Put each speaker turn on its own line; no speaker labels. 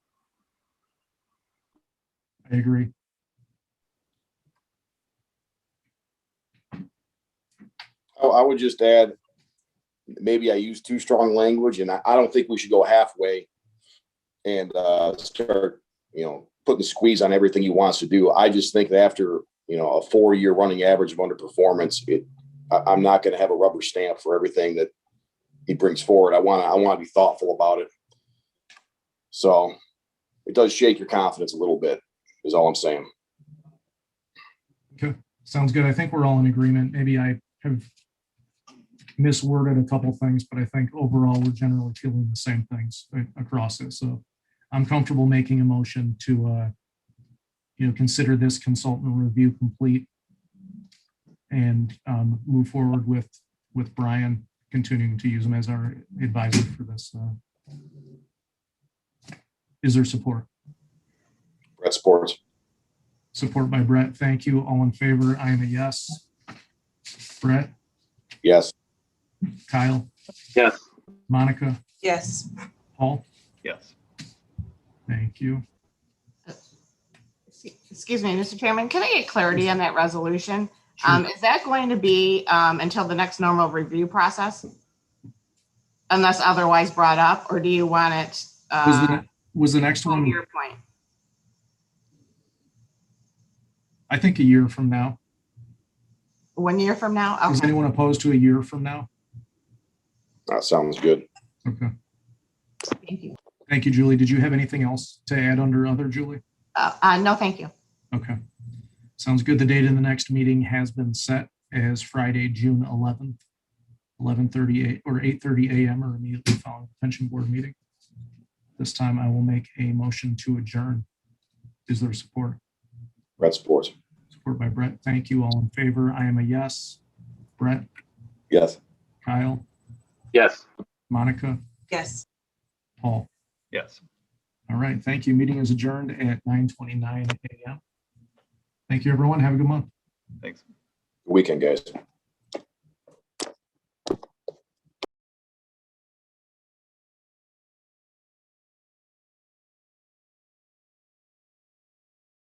I agree.
I, Oh, I would just add, maybe I use too strong language and I, I don't think we should go halfway and, uh, start, you know, putting the squeeze on everything he wants to do. I just think that after, you know, a four-year running average of underperformance, it, I, I'm not going to have a rubber stamp for everything that he brings forward. I want to, I want to be thoughtful about it. So it does shake your confidence a little bit is all I'm saying.
Sounds good. I think we're all in agreement. Maybe I have misworded a couple things, but I think overall we're generally feeling the same things a- across it. So I'm comfortable making a motion to, uh, you know, consider this consultant review complete and, um, move forward with, with Brian continuing to use him as our advisor for this. uh, Is there support?
Brett Sports.
Support by Brett. Thank you. All in favor? I am a yes. Brett?
Yes.
Kyle?
Yes.
Monica?
Yes,
Paul?
Yes.
Thank you.
Excuse me, Mr. Chairman, can I get clarity on that resolution? Um, is that going to be, um, until the next normal review process? Unless otherwise brought up, or do you want it,
Was
uh,
the, was the next
from
one,
your point?
I think a year from now?
One year from now?
Is
Okay,
anyone opposed to a year from now?
That sounds good.
Okay.
thank you.
Thank you, Julie. Did you have anything else to add under other, Julie?
Uh, uh, no, thank you.
Okay. Sounds good. The date of the next meeting has been set as Friday, June 11th, 11:38 or 8:30 a.m. or immediately following the pension board meeting. This time I will make a motion to adjourn. Is there support?
Brett Sports.
Support by Brett. Thank you. All in favor? I am a yes. Brett,
Yes.
Kyle,
Yes.
Monica,
yes.
Paul.
Yes.
All right. Thank you. Meeting is adjourned at 9:29 a.m. Thank you, everyone. Have a good month.
Thanks.
Weekend, guys.